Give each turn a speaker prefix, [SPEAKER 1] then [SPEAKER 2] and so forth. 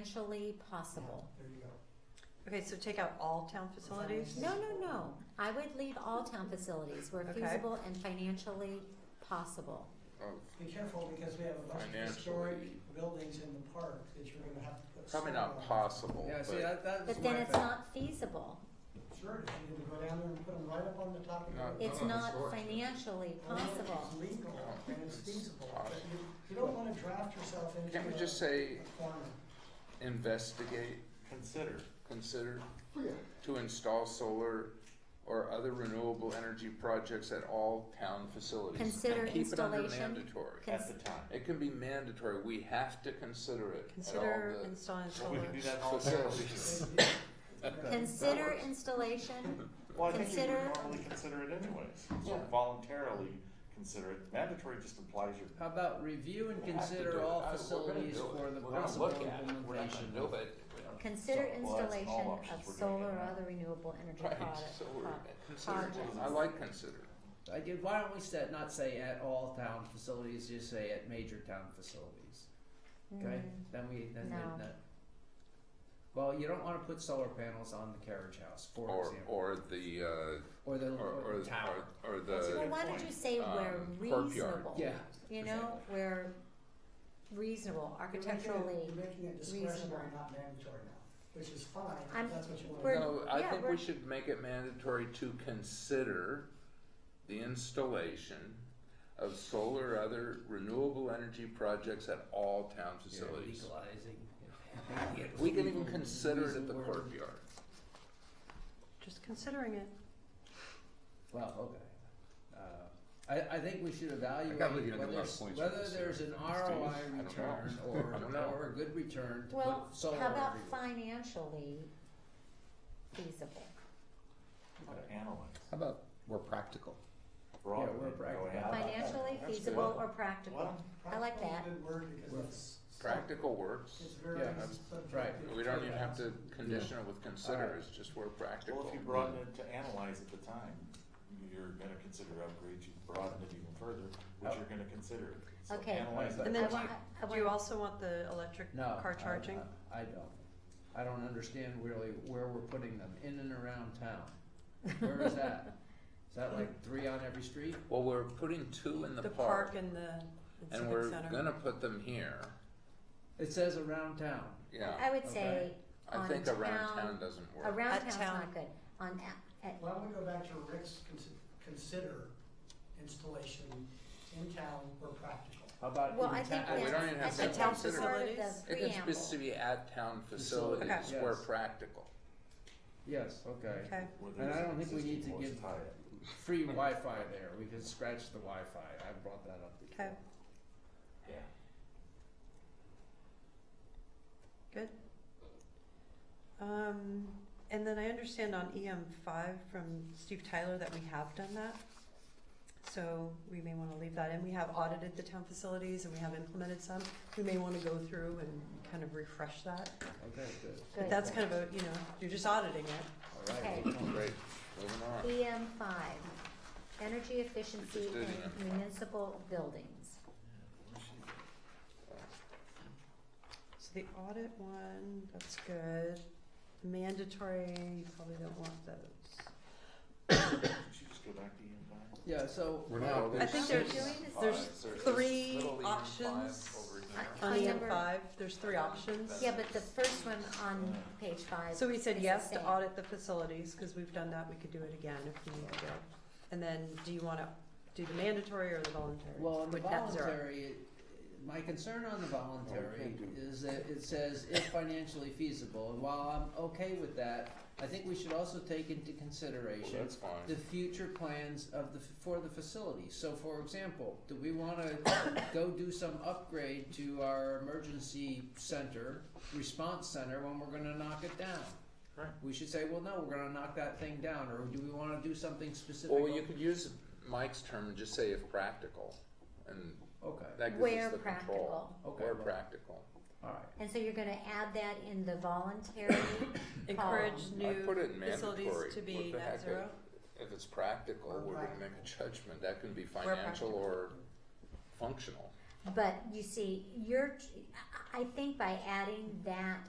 [SPEAKER 1] financially possible.
[SPEAKER 2] There you go.
[SPEAKER 3] Okay, so take out all town facilities?
[SPEAKER 1] No, no, no. I would leave all town facilities where
[SPEAKER 3] Okay.
[SPEAKER 1] feasible and financially possible.
[SPEAKER 4] Oh,
[SPEAKER 2] Be careful because we have a bunch of historic
[SPEAKER 4] Financially.
[SPEAKER 2] buildings in the park that you're gonna have to put.
[SPEAKER 4] probably not
[SPEAKER 2] solar on.
[SPEAKER 4] possible,
[SPEAKER 5] Yeah, see,
[SPEAKER 4] but
[SPEAKER 5] that, that's
[SPEAKER 1] But
[SPEAKER 5] my
[SPEAKER 1] then it's
[SPEAKER 5] thing.
[SPEAKER 1] not feasible.
[SPEAKER 2] Sure, if you can go down there and put them right up on the top of
[SPEAKER 4] No,
[SPEAKER 2] your.
[SPEAKER 1] It's
[SPEAKER 4] no,
[SPEAKER 1] not
[SPEAKER 4] it's not.
[SPEAKER 1] financially possible.
[SPEAKER 2] It's legal
[SPEAKER 4] No,
[SPEAKER 2] and it's
[SPEAKER 4] it's
[SPEAKER 2] feasible, but
[SPEAKER 4] possible.
[SPEAKER 2] you, you don't wanna draft yourself into.
[SPEAKER 4] can't we
[SPEAKER 2] a- a
[SPEAKER 4] just say
[SPEAKER 2] corner.
[SPEAKER 4] investigate,
[SPEAKER 6] Consider.
[SPEAKER 4] consider
[SPEAKER 5] Oh,
[SPEAKER 6] Yeah.
[SPEAKER 4] to install solar or other renewable energy projects at all town facilities?
[SPEAKER 1] Consider
[SPEAKER 4] and keep it
[SPEAKER 1] installation.
[SPEAKER 4] under mandatory.
[SPEAKER 6] At the
[SPEAKER 1] Cons-
[SPEAKER 6] time.
[SPEAKER 4] It can be mandatory. We have to consider it
[SPEAKER 3] Consider
[SPEAKER 4] at all
[SPEAKER 3] installing
[SPEAKER 6] Well, we
[SPEAKER 3] solar.
[SPEAKER 6] can do that in all
[SPEAKER 4] Facilities.
[SPEAKER 6] facilities.
[SPEAKER 1] Consider installation,
[SPEAKER 6] Well, I think you
[SPEAKER 1] Consider-
[SPEAKER 6] would normally consider it anyways. So
[SPEAKER 4] Yeah.
[SPEAKER 6] voluntarily consider it. Mandatory just implies you're.
[SPEAKER 5] How about review and
[SPEAKER 4] the. We have to do
[SPEAKER 5] consider
[SPEAKER 4] it.
[SPEAKER 5] all
[SPEAKER 4] Uh, we're gonna
[SPEAKER 5] facilities
[SPEAKER 4] do it.
[SPEAKER 5] for the
[SPEAKER 4] We're gonna
[SPEAKER 5] possible
[SPEAKER 4] look at it. We're not
[SPEAKER 5] implementation?
[SPEAKER 4] gonna do it. We don't-
[SPEAKER 1] consider
[SPEAKER 6] Well, that's all
[SPEAKER 1] installation of
[SPEAKER 6] options we're gonna
[SPEAKER 1] solar
[SPEAKER 6] get
[SPEAKER 1] or
[SPEAKER 6] now.
[SPEAKER 1] other renewable energy
[SPEAKER 4] Right,
[SPEAKER 1] product-
[SPEAKER 4] so we're,
[SPEAKER 1] pro-
[SPEAKER 4] consider,
[SPEAKER 1] projects.
[SPEAKER 4] I like consider.
[SPEAKER 5] I did, why don't we set, not say at all town facilities, just say at major town facilities, okay?
[SPEAKER 1] Mm,
[SPEAKER 5] Then we, then,
[SPEAKER 1] No.
[SPEAKER 5] then, that. Well, you don't wanna put solar panels on the carriage house, for
[SPEAKER 4] Or,
[SPEAKER 5] example,
[SPEAKER 4] or the, uh,
[SPEAKER 5] or the,
[SPEAKER 4] or,
[SPEAKER 5] or
[SPEAKER 4] or,
[SPEAKER 5] the tower,
[SPEAKER 4] or, or
[SPEAKER 6] That's a
[SPEAKER 4] the,
[SPEAKER 1] Well,
[SPEAKER 6] good
[SPEAKER 1] why don't
[SPEAKER 6] point.
[SPEAKER 1] you say where
[SPEAKER 4] uh, Um, courtyard.
[SPEAKER 1] reasonable?
[SPEAKER 5] yeah,
[SPEAKER 1] You know, where reasonable,
[SPEAKER 2] You're making it-
[SPEAKER 1] architecturally.
[SPEAKER 2] You're making it discretionary,
[SPEAKER 1] reasonable.
[SPEAKER 2] not mandatory now, which is fine,
[SPEAKER 1] I'm-
[SPEAKER 2] if that's what you wanna do.
[SPEAKER 1] we're-
[SPEAKER 4] no, I
[SPEAKER 1] yeah,
[SPEAKER 4] think we
[SPEAKER 1] we're-
[SPEAKER 4] should make it mandatory to consider the installation of solar or other renewable energy projects at all town
[SPEAKER 5] yeah,
[SPEAKER 4] facilities.
[SPEAKER 5] legalizing.
[SPEAKER 4] We can even consider it
[SPEAKER 5] Use
[SPEAKER 4] at the
[SPEAKER 5] word.
[SPEAKER 4] courtyard.
[SPEAKER 3] Just considering it.
[SPEAKER 5] Well, okay. Uh, I, I think we should evaluate
[SPEAKER 4] gotta leave you in a
[SPEAKER 5] whether,
[SPEAKER 4] lot of points
[SPEAKER 5] whether
[SPEAKER 4] for this
[SPEAKER 5] there's an
[SPEAKER 4] here. I
[SPEAKER 5] ROI
[SPEAKER 4] don't know.
[SPEAKER 5] return
[SPEAKER 4] I
[SPEAKER 5] or,
[SPEAKER 4] don't know.
[SPEAKER 5] or a good return to
[SPEAKER 1] Well,
[SPEAKER 5] put solar
[SPEAKER 1] how about
[SPEAKER 5] everywhere.
[SPEAKER 1] financially feasible?
[SPEAKER 6] You've got to analyze.
[SPEAKER 7] How about we're practical?
[SPEAKER 6] Broaden
[SPEAKER 5] we're
[SPEAKER 6] it, go
[SPEAKER 5] practical.
[SPEAKER 6] ahead.
[SPEAKER 1] Financially
[SPEAKER 6] That's
[SPEAKER 1] feasible
[SPEAKER 6] good.
[SPEAKER 1] or practical?
[SPEAKER 6] Well,
[SPEAKER 1] I like
[SPEAKER 2] Practical
[SPEAKER 1] that.
[SPEAKER 2] is a Good word because
[SPEAKER 5] Right.
[SPEAKER 2] it's.
[SPEAKER 4] Practical works.
[SPEAKER 2] It's very.
[SPEAKER 5] Yeah,
[SPEAKER 4] that's
[SPEAKER 2] subjective.
[SPEAKER 5] right.
[SPEAKER 4] We don't even have to condition it with
[SPEAKER 5] All
[SPEAKER 4] consider,
[SPEAKER 5] right.
[SPEAKER 4] it's just we're practical.
[SPEAKER 6] well, if you broaden it to analyze at the time, you're going to consider upgrades. You broaden it even further, which you're going to consider. it. So
[SPEAKER 1] Okay.
[SPEAKER 6] Analyze
[SPEAKER 5] And
[SPEAKER 6] it.
[SPEAKER 3] then
[SPEAKER 1] I
[SPEAKER 3] do
[SPEAKER 1] wa-
[SPEAKER 3] you-
[SPEAKER 1] I- I
[SPEAKER 3] Do you
[SPEAKER 1] wa-
[SPEAKER 3] also want the electric
[SPEAKER 5] No,
[SPEAKER 3] car
[SPEAKER 5] I- uh,
[SPEAKER 3] charging?
[SPEAKER 5] I, I don't. I don't understand really where we're putting them, in and around town. Where is that? Is that like three on every street?
[SPEAKER 4] Well, we're putting two in the
[SPEAKER 3] The
[SPEAKER 4] park,
[SPEAKER 3] park and the and
[SPEAKER 4] and
[SPEAKER 3] civic
[SPEAKER 4] we're
[SPEAKER 3] center.
[SPEAKER 4] gonna put them here,
[SPEAKER 5] It says around town.
[SPEAKER 4] yeah.
[SPEAKER 1] I would say
[SPEAKER 4] I
[SPEAKER 1] on
[SPEAKER 4] think around
[SPEAKER 1] town-
[SPEAKER 4] town doesn't work.
[SPEAKER 1] around
[SPEAKER 3] At
[SPEAKER 1] town's
[SPEAKER 3] town.
[SPEAKER 1] not good, on, a- at,
[SPEAKER 2] Why don't we go back to Rick's consi- consider installation in town where practical?
[SPEAKER 5] How about in
[SPEAKER 1] well, I
[SPEAKER 5] ta-
[SPEAKER 1] think
[SPEAKER 4] we don't even have
[SPEAKER 1] that's, I
[SPEAKER 4] to
[SPEAKER 1] think that's
[SPEAKER 3] consider
[SPEAKER 1] part of
[SPEAKER 3] it.
[SPEAKER 1] the
[SPEAKER 4] It can
[SPEAKER 1] preamble.
[SPEAKER 4] specifically be at town
[SPEAKER 5] Facilities,
[SPEAKER 4] facilities where
[SPEAKER 5] yes.
[SPEAKER 4] practical.
[SPEAKER 5] Yes, okay.
[SPEAKER 3] Okay.
[SPEAKER 6] Where
[SPEAKER 5] And I
[SPEAKER 6] there's
[SPEAKER 5] don't think we need to
[SPEAKER 6] existing
[SPEAKER 5] give-
[SPEAKER 6] voice tie it.
[SPEAKER 5] Free Wi-Fi there, we can scratch the Wi-Fi, I brought that up before.
[SPEAKER 3] Okay.
[SPEAKER 6] Yeah.
[SPEAKER 3] Good. Um, and then I understand on EM five from Steve Tyler that we have done that. So we may wanna leave that in. We have audited the town facilities and we have implemented some. We may wanna go through and kind of refresh that.
[SPEAKER 5] Okay, good.
[SPEAKER 3] But
[SPEAKER 1] Good.
[SPEAKER 3] that's kind of a, you know, you're just auditing it.
[SPEAKER 5] All
[SPEAKER 1] Okay.
[SPEAKER 5] right, good point.
[SPEAKER 4] Great, moving on.
[SPEAKER 1] EM five, energy efficiency
[SPEAKER 4] Just did
[SPEAKER 1] in municipal buildings.
[SPEAKER 3] So the audit one, that's good. Mandatory, you probably don't want those.
[SPEAKER 6] Did you just go back to E Ian Vine?
[SPEAKER 5] Yeah, so.
[SPEAKER 7] We're not-
[SPEAKER 3] I think there's,
[SPEAKER 1] Doing
[SPEAKER 3] there's
[SPEAKER 4] Five, there's this
[SPEAKER 3] three
[SPEAKER 4] little EM five
[SPEAKER 3] options
[SPEAKER 4] over here.
[SPEAKER 1] I-
[SPEAKER 3] on
[SPEAKER 1] On
[SPEAKER 3] EM
[SPEAKER 1] number-
[SPEAKER 3] five. There's three options.
[SPEAKER 1] Yeah, but the first one on page five.
[SPEAKER 3] So we
[SPEAKER 1] is
[SPEAKER 3] said
[SPEAKER 1] the
[SPEAKER 3] yes to
[SPEAKER 1] same.
[SPEAKER 3] audit the facilities, because we've done that, we could do it again if we need to. And then, do you wanna do the mandatory or the voluntary?
[SPEAKER 5] Well, on the
[SPEAKER 3] With net zero.
[SPEAKER 5] voluntary, it- my concern on the voluntary
[SPEAKER 4] Well, we do.
[SPEAKER 5] is that it says if financially feasible, and while I'm okay with that, I think we should also take into
[SPEAKER 4] Well,
[SPEAKER 5] consideration
[SPEAKER 4] that's fine.
[SPEAKER 5] the future plans of the, for the facility. So for example, do we wanna go do some upgrade to our emergency center, response center, when we're gonna knock it down?
[SPEAKER 4] Right.
[SPEAKER 5] We should say, well, no, we're gonna knock that thing down, or do we wanna do something specific?
[SPEAKER 4] Or you could use Mike's term and just say if practical, and
[SPEAKER 5] Okay,
[SPEAKER 4] that gives
[SPEAKER 1] Where
[SPEAKER 4] us the control.
[SPEAKER 1] practical.
[SPEAKER 5] Okay.
[SPEAKER 4] Where practical.
[SPEAKER 5] alright.
[SPEAKER 1] And so you're gonna add that in the voluntary,
[SPEAKER 3] Encourage
[SPEAKER 1] Um,
[SPEAKER 4] I put it
[SPEAKER 3] new
[SPEAKER 4] in
[SPEAKER 3] facilities
[SPEAKER 4] mandatory.
[SPEAKER 3] to
[SPEAKER 4] What
[SPEAKER 3] be
[SPEAKER 4] the
[SPEAKER 3] net
[SPEAKER 4] heck,
[SPEAKER 3] zero?
[SPEAKER 4] If it's practical,
[SPEAKER 2] Or
[SPEAKER 4] we're gonna make a judgment, that can be financial
[SPEAKER 3] practical.
[SPEAKER 4] or functional.
[SPEAKER 1] But you see, you're, I I think by adding that